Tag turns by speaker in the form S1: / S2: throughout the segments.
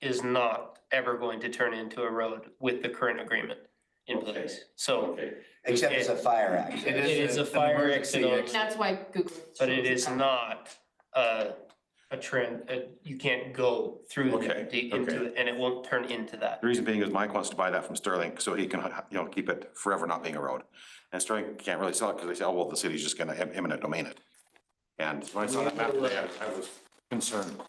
S1: is not ever going to turn into a road with the current agreement in
S2: Okay.
S1: place. So,
S2: Okay,
S3: Except it's a fire
S1: It
S3: accident.
S1: is a
S4: an
S1: fire
S4: emergency
S1: exit on-
S4: exit.
S5: That's why Google.
S1: but it is not a, a trend, uh, you can't go through
S2: Okay,
S1: the- the, into,
S2: okay.
S1: it, and it won't turn into that.
S6: The reason being is Mike wants to buy that from Sterling, so he can, you know, keep it forever not being a road. And Sterling can't really sell it because they say, oh, well, the city's just gonna em- eminent domain it. And when I saw that map, today, I I was concerned.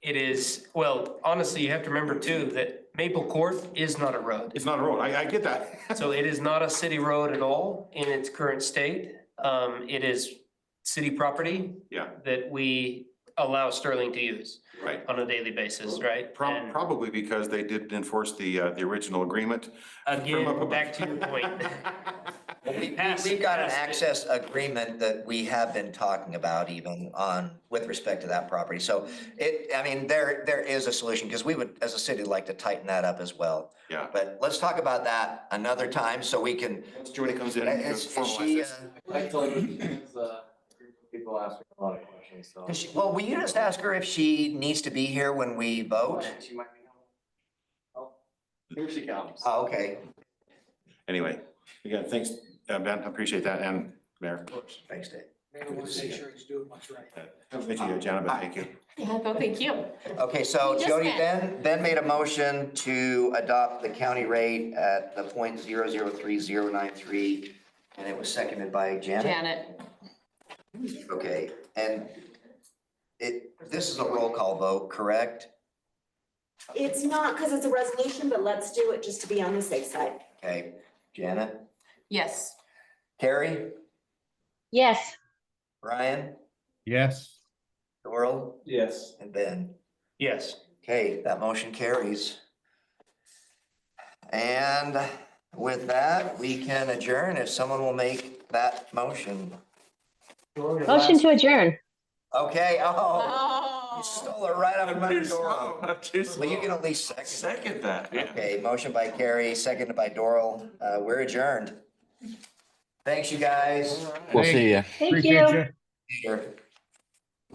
S1: It is, well, honestly, you have to remember too, that Maple Court is not a road.
S6: It's not a road. I, I get that.
S1: So it is not a city road at all in its current state. Um, it is city property.
S6: Yeah.
S1: That we allow Sterling to use
S6: Right.
S1: on a daily basis, right?
S6: Prob-
S1: And
S6: Probably because they didn't enforce the, uh, the original agreement. From
S1: Again,
S6: up
S1: back to your point.
S3: We, we-
S1: Pass
S3: we've got an
S1: it, pass it.
S3: access agreement that we have been talking about even on, with respect to that property. So it, I mean, there, there is a solution, because we would, as a city, like to tighten that up as well.
S6: Yeah.
S3: But let's talk about that another time, so we can,
S6: Once Jody comes in. and
S3: is is she,
S6: formalizes.
S3: uh,
S4: I told you, because, uh, people ask me a lot of questions, so.
S3: Does uh, she, well, will you just ask her if she needs to be here when we vote?
S4: She might be. Oh, Here she comes.
S3: Oh, okay, uh,
S6: Anyway, again, thanks, uh, Ben, I appreciate that, and Mayor.
S3: thanks, Dave.
S7: Maybe we'll make sure he's doing what's right.
S6: Thank you, Janet, thank you.
S5: Yeah, no, thank you.
S3: Okay, so
S5: We just
S3: Jody, Ben,
S5: met.
S3: Ben made a motion to adopt the county rate at the point zero zero three zero nine three, and it was seconded by Janet.
S5: Janet,
S3: Okay, and it, this is a roll call vote, correct?
S8: It's not because it's a resolution, but let's do it just to be on the safe side.
S3: Okay, Janet,
S5: yes.
S3: Carrie,
S9: Yes,
S3: Brian,
S10: Yes.
S3: Doral,
S4: Yes.
S3: and Ben.
S1: Yes,
S3: Okay, that motion carries. And with that, we can adjourn if someone will make that motion.
S9: motion to adjourn.
S3: Okay, oh, you
S5: Oh.
S3: stole it right out of my
S2: Too
S3: door.
S2: slow, I'm too
S3: Well, you
S2: slow.
S3: can at least second.
S2: Second that, yeah.
S3: Okay, motion by Carrie, seconded by Doral. Uh, we're adjourned. Thanks, you guys.
S10: We'll see you.
S9: Thank you.
S3: Sure.